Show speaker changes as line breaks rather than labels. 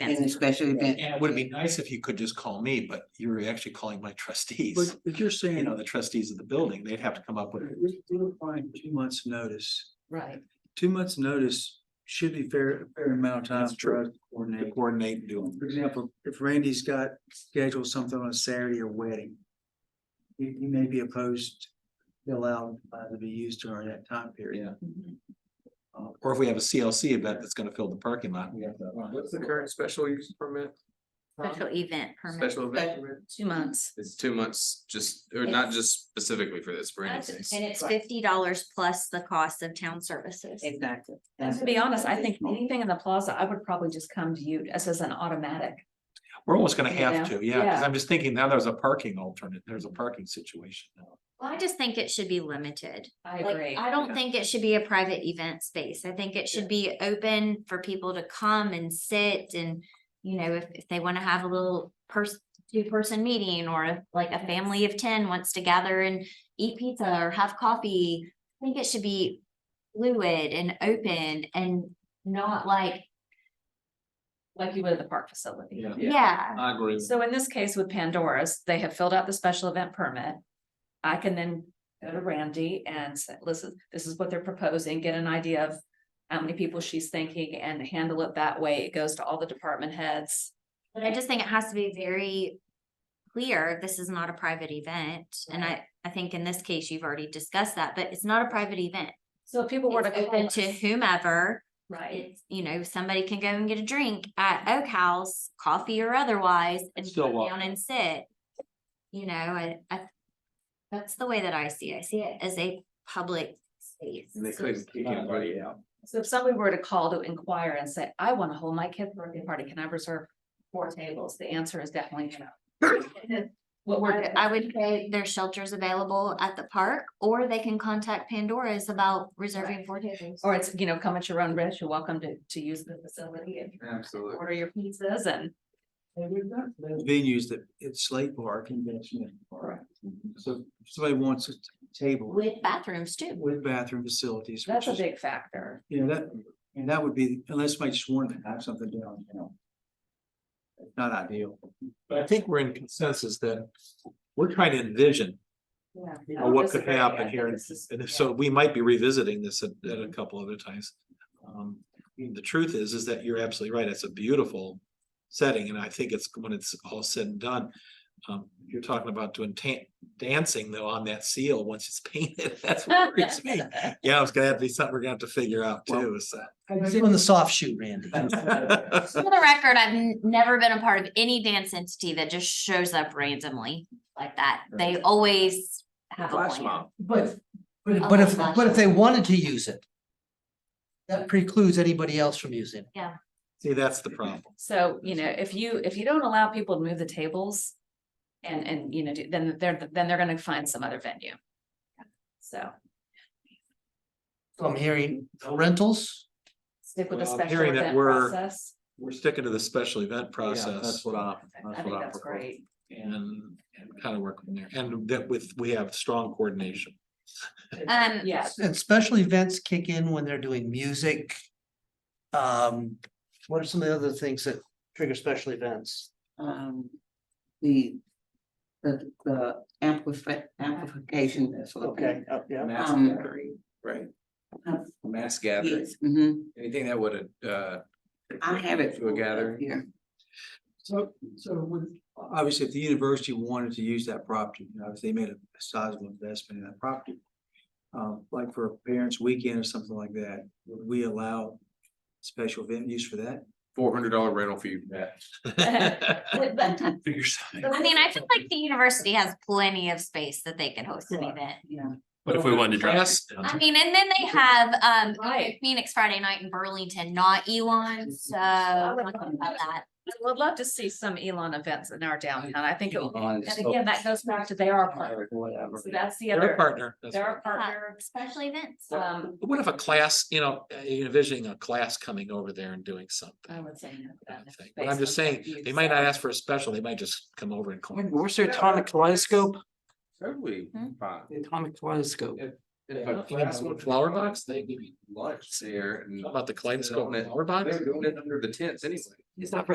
in a special event.
And it would be nice if you could just call me, but you're actually calling my trustees,
But if you're
you
saying,
know, the trustees of the building, they'd have to come up with.
we're we're applying two months' notice,
Right.
two months' notice should be fair, fair amount of time
That's
for
true.
us to
to
coordinate.
Coordinate and do
For example, if Randy's got scheduled something on a Saturday or wedding. He, he may be opposed, to allow uh, to be used during that time period.
Yeah. Or if we have a CLC event that's gonna fill the parking lot, we have to.
What's the current special use permit? Tom?
Um,
Special event permit,
Special event permit?
two months.
It's two months, just, or not just specifically for this, for
And
instance.
it's fifty dollars plus the cost of town services.
Exactly.
And to be honest, I think anything in the plaza, I would probably just come to you as as an automatic.
We're almost gonna have
Yeah.
to, yeah, because
Yeah.
I'm just thinking now there's a parking alternate, there's a parking situation now.
Well, I just think it should be limited.
I
Like,
agree.
I don't think it should be a private event space. I think it should be open for people to come and sit and, you know, if, if they want to have a little person, two-person meeting, or if like a family of ten wants to gather and eat pizza or have coffee. I think it should be fluid and open and not like,
Like you would at the park facility.
Yeah.
yeah,
I agree.
So in this case with Pandora's, they have filled out the special event permit. I can then go to Randy and say, listen, this is what they're proposing, get an idea of how many people she's thinking and handle it that way. It goes to all the department heads.
but I just think it has to be very clear, this is not a private event. And I, I think in this case, you've already discussed that, but it's not a private event.
So if people were to.
It's open
call
to
us-
whomever.
Right.
it's, you know, somebody can go and get a drink at Oak House, coffee or otherwise, and
Still
sit
walk.
down and sit. You know, I, I, that's the way that I see it. I see it as a public space.
And they couldn't kick anybody out.
So if somebody were to call to inquire and say, I want to hold my kid's birthday party, can I reserve four tables? The answer is definitely no. What we're,
I would say there's shelters available at the park, or they can contact Pandora's about reserving four tables.
or it's, you know, come at your own risk. You're welcome to, to use the facility and
Absolutely.
order your pizzas and.
And we've got those venues that it's Slate Park and Convention Park. So if somebody wants a t- table
With bathrooms too.
with bathroom facilities.
That's a
which is-
big factor.
You know, that, and that would be, unless my sworn to have something down, you know. Not ideal.
But I think we're in consensus that we're trying to envision
Yeah.
you know, what could happen here, and and so we might be revisiting this at, at
Mm-hmm.
a couple other times. Um, the truth is, is that you're absolutely right, it's a beautiful setting, and I think it's, when it's all said and done. Um, you're talking about doing tan- dancing though on that seal once it's painted, that's what worries me. Yeah, it's gonna have to be something we're gonna have to figure out too, so.
On the soft shoe, Randy.
For the record, I've n- never been a part of any dance entity that just shows up randomly like that. They always have a
Flash
plan.
mob.
But,
Oh,
but, but if,
gosh.
but if they wanted to use it. That precludes anybody else from using it.
See, that's the problem.
So, you know, if you, if you don't allow people to move the tables. And, and, you know, do- then they're, then they're gonna find some other venue. So
So I'm hearing no rentals,
stick with the
Well, I'm
special
hearing that
event
we're-
process.
We're sticking to the special event process
That's what I.
I think that's great.
and, and kind of work from there, and that with, we have strong coordination.
Um,
Yeah,
and special events kick in when they're doing music. Um, what are some of the other things that trigger special events?
Um, the, the, the amplifi- amplification. that's what they-
Okay, oh, yeah,
Mass
Um,
gathering, right?
Huh?
Mass gathering,
Yes, hmm
anything that would, uh,
I have it.
To a gathering.
Here,
So, so with, obviously, if the university wanted to use that property, you know, if they made a sizable investment in that property. Um, like for a parents' weekend or something like that, would we allow special event use for that?
four hundred dollar rental fee.
Figure something.
I mean, I feel like the university has plenty of space that they can host an event.
yeah.
But if we wanted to drop,
Yes.
I mean, and then they have, um,
Right.
Phoenix Friday night in Burlington, not Elon, so. I don't know about that.
I would love to see some Elon events in our downtown. I think it would,
Elon
and
is so-
again, that goes back to they are a partner.
Whatever.
So that's the
They're a
other,
partner. that's
they're
right.
a partner.
Special events.
Um,
What if a class, you know, uh, envisioning a class coming over there and
I
doing something?
would say. no to that if
But I'm
based
just
on Oh, what
saying,
you
they might not
said.
ask for a special, they might just come over and. call.
Where's
their atomic
kaleidoscope?
Totally
Hmm?
fine.
Atomic kaleidoscope.
And if a
Yeah,
class would-
Flower box, they give you,
Lunch there and
about the
they're
kaleidoscope
doing it-
flower box?
they're doing it under the tents anyway.
It's not